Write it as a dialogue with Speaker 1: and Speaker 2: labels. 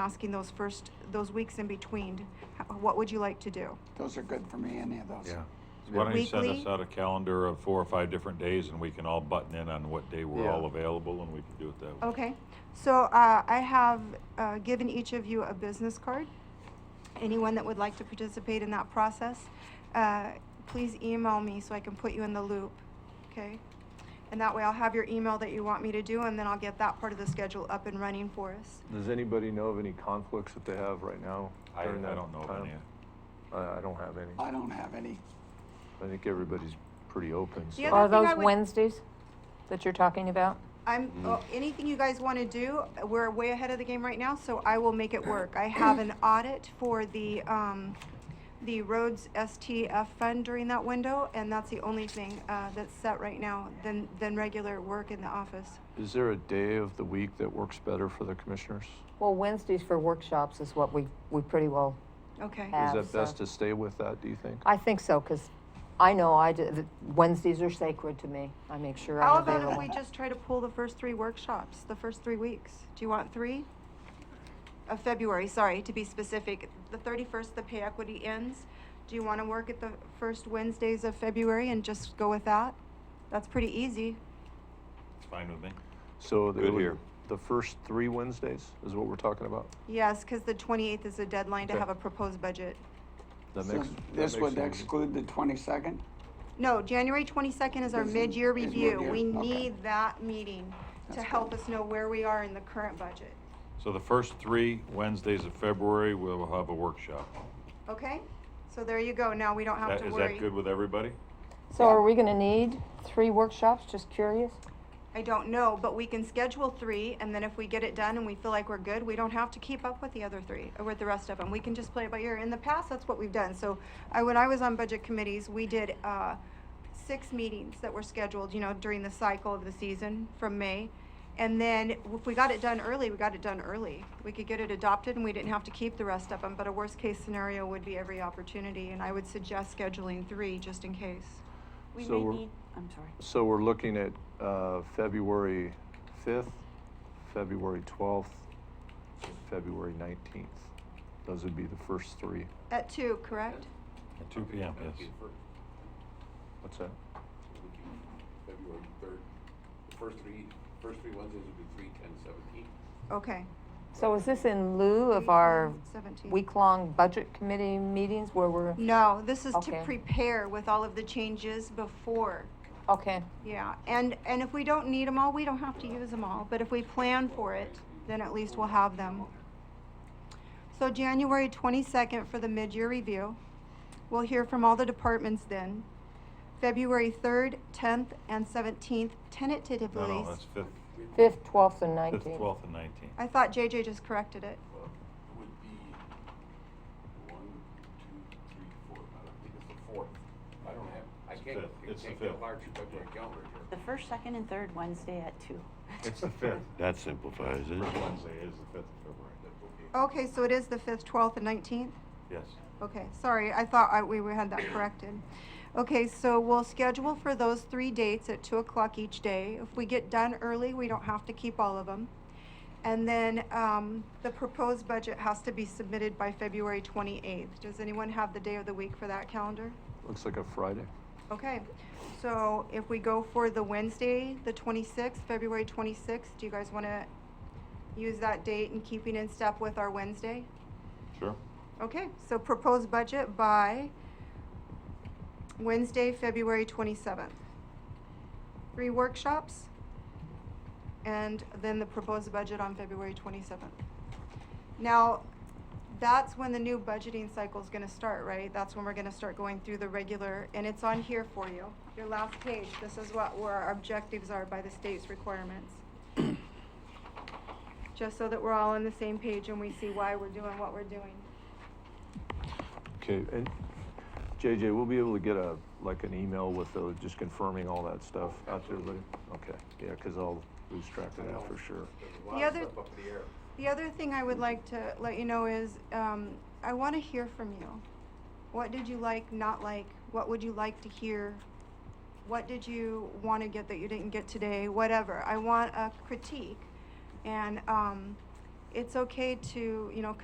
Speaker 1: asking those first, those weeks in between, h- what would you like to do?
Speaker 2: Those are good for me, any of those.
Speaker 3: Yeah. Why don't you send us
Speaker 1: Weekly?
Speaker 3: out a calendar of four or five different days and we can all button in on what day we're
Speaker 4: Yeah.
Speaker 3: all available and we can do it that way.
Speaker 1: Okay, so uh, I have uh, given each of you a business card. Anyone that would like to participate in that process, uh, please email me so I can put you in the loop, okay? And that way I'll have your email that you want me to do, and then I'll get that part of the schedule up and running for us.
Speaker 4: Does anybody know of any conflicts that they have right now?
Speaker 3: I, I
Speaker 4: during that
Speaker 3: don't know of
Speaker 4: time?
Speaker 3: any.
Speaker 4: I, I don't have any.
Speaker 2: I don't have any.
Speaker 4: I think everybody's pretty open, so.
Speaker 1: The other
Speaker 5: Are
Speaker 1: thing I
Speaker 5: those
Speaker 1: would-
Speaker 5: Wednesdays that you're talking about?
Speaker 1: I'm, oh, anything you guys want to do, we're way ahead of the game right now, so I will make it work. I have an audit for the, um, the roads STF fund during that window, and that's the only thing, uh, that's set right now than, than regular work in the office.
Speaker 4: Is there a day of the week that works better for the commissioners?
Speaker 5: Well, Wednesdays for workshops is what we, we pretty well,
Speaker 1: Okay,
Speaker 5: Uh,
Speaker 4: Is
Speaker 5: Have
Speaker 4: that best
Speaker 5: some.
Speaker 4: to stay with that, do you think?
Speaker 5: I think so, because I know I, d- that Wednesdays are sacred to me. I make sure
Speaker 1: how
Speaker 5: I'm
Speaker 1: about if we
Speaker 5: available.
Speaker 1: just try to pull the first three workshops, the first three weeks? Do you want three? Of February, sorry, to be specific, the thirty-first, the pay equity ends. Do you want to work at the first Wednesdays of February and just go with that? That's pretty easy.
Speaker 3: It's fine with me.
Speaker 4: So they
Speaker 3: Good
Speaker 4: would-
Speaker 3: here.
Speaker 4: the first three Wednesdays is what we're talking about?
Speaker 1: Yes, because the 28th is a deadline to
Speaker 4: Okay.
Speaker 1: have a proposed budget.
Speaker 4: That
Speaker 2: So
Speaker 4: makes. that
Speaker 2: This
Speaker 4: makes
Speaker 2: would
Speaker 4: it easy.
Speaker 2: exclude the twenty-second?
Speaker 1: No, January 22nd is our
Speaker 2: Is-
Speaker 1: mid-year
Speaker 2: is
Speaker 1: review.
Speaker 2: mid-year,
Speaker 1: We
Speaker 2: okay.
Speaker 1: need that meeting to
Speaker 2: That's
Speaker 1: help
Speaker 2: good.
Speaker 1: us know where we are in the current budget.
Speaker 3: So the first three Wednesdays of February, we'll have a workshop.
Speaker 1: Okay? So there you go. Now we don't have
Speaker 3: That,
Speaker 1: to
Speaker 3: is
Speaker 1: worry.
Speaker 3: that good with everybody?
Speaker 5: So are we gonna need three workshops, just curious?
Speaker 1: I don't know, but we can schedule three, and then if we get it done and we feel like we're good, we don't have to keep up with the other three, or with the rest of them. We can just play it by ear. In the past, that's what we've done. So I, when I was on budget committees, we did, uh, six meetings that were scheduled, you know, during the cycle of the season from May. And then if we got it done early, we got it done early. We could get it adopted and we didn't have to keep the rest of them, but a worst-case scenario would be every opportunity, and I would suggest scheduling three just in case.
Speaker 6: We
Speaker 4: So
Speaker 6: may
Speaker 4: we're-
Speaker 6: need, I'm sorry.
Speaker 4: So we're looking at uh, February 5th, February 12th, and February 19th. Those would be the first three.
Speaker 1: At two, correct?
Speaker 3: At two PM, yes.
Speaker 4: What's that?
Speaker 7: February third, the first three, first three Wednesdays would be three, ten, seventeen.
Speaker 1: Okay.
Speaker 5: So is this in lieu of our
Speaker 1: 17.
Speaker 5: week-long budget committee meetings where we're,
Speaker 1: No, this is to
Speaker 5: Okay.
Speaker 1: prepare with all of the changes before,
Speaker 5: okay,
Speaker 1: yeah. And, and if we don't need them all, we don't have to use them all, but if we plan for it, then at least we'll have them. So January twenty-second for the mid-year review. We'll hear from all the departments then. February third, tenth, and seventeenth
Speaker 3: No,
Speaker 1: tentatively.
Speaker 3: no, that's fifth,
Speaker 5: fifth, twelfth, and
Speaker 3: fifth,
Speaker 5: nineteenth?
Speaker 3: twelfth and nineteenth.
Speaker 1: I thought JJ just corrected it.
Speaker 7: Well, it would be one, two, three, four, I don't think it's the fourth. I don't have, I
Speaker 3: It's
Speaker 7: can't,
Speaker 3: fifth.
Speaker 7: I
Speaker 3: It's the
Speaker 7: can't get a
Speaker 3: fifth.
Speaker 7: large February calendar here.
Speaker 6: The first, second, and third Wednesday at two.
Speaker 3: It's the fifth.
Speaker 8: That simplifies it.
Speaker 3: First Wednesday is the fifth of February.
Speaker 1: Okay, so it is the fifth, twelfth, and nineteenth?
Speaker 3: Yes.
Speaker 1: Okay, sorry, I thought I, we were- had that corrected. Okay, so we'll schedule for those three dates at two o'clock each day. If we get done early, we don't have to keep all of them. And then, um, the proposed budget has to be submitted by February twenty-eighth. Does anyone have the day of the week for that calendar?
Speaker 4: Looks like a Friday.
Speaker 1: Okay, so if we go for the Wednesday, the twenty-sixth, February twenty-sixth, do you guys wanna use that date in keeping in step with our Wednesday?
Speaker 3: Sure.
Speaker 1: Okay, so proposed budget by Wednesday, February 27th. Three workshops, and then the proposed budget on February 27th. Now, that's when the new budgeting cycle is going to start, right? That's when we're going to start going through the regular, and it's on here for you, your last page. This is what, where our objectives are by the state's requirements. Just so that we're all on the same page and we see why we're doing what we're doing.
Speaker 4: Okay, and JJ, we'll be able to get a, like an email with the, just confirming all that stuff out to everybody? Okay, yeah, because I'll lose track of that for sure.
Speaker 7: There's a lot
Speaker 1: The
Speaker 7: of
Speaker 1: other-
Speaker 7: stuff up in the air. Mm-hmm.
Speaker 1: The other thing I would like to let you know is, um, I want to hear from you. What did you like, not like? What would you like to hear? What did you want to get that you didn't get today? Whatever. I want a critique. And, um, it's okay to, you know,